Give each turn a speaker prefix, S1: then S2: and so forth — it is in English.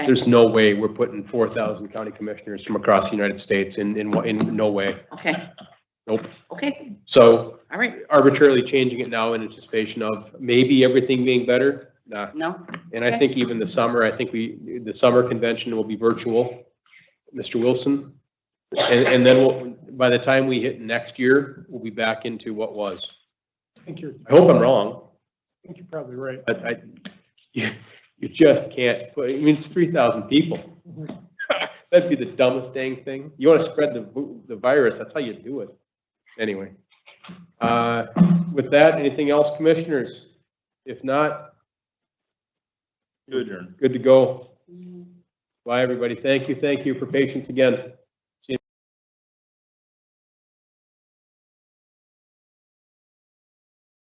S1: There's no way we're putting four thousand county commissioners from across the United States in, in, one- in no way.
S2: Okay,
S1: Nope.
S2: okay,
S1: So
S2: all right,
S1: arbitrarily changing it now in anticipation of maybe everything being better, nah.
S2: no,
S1: And I think even the summer, I think we, the summer convention will be virtual, Mr. Wilson. And, and then we'll, by the time we hit next year, we'll be back into what was.
S3: I think you're,
S1: I hope I'm wrong,
S3: I think you're probably right.
S1: but I, you, you just can't, put. I mean, it's three thousand people. That'd be the dumbest dang thing. You wanna spread the, vu- the virus, that's how you do it. Anyway. Uh, with that, anything else, commissioners? If not,
S4: Good, Aaron.
S1: good to go. Bye, everybody. Thank you, thank you for patience again.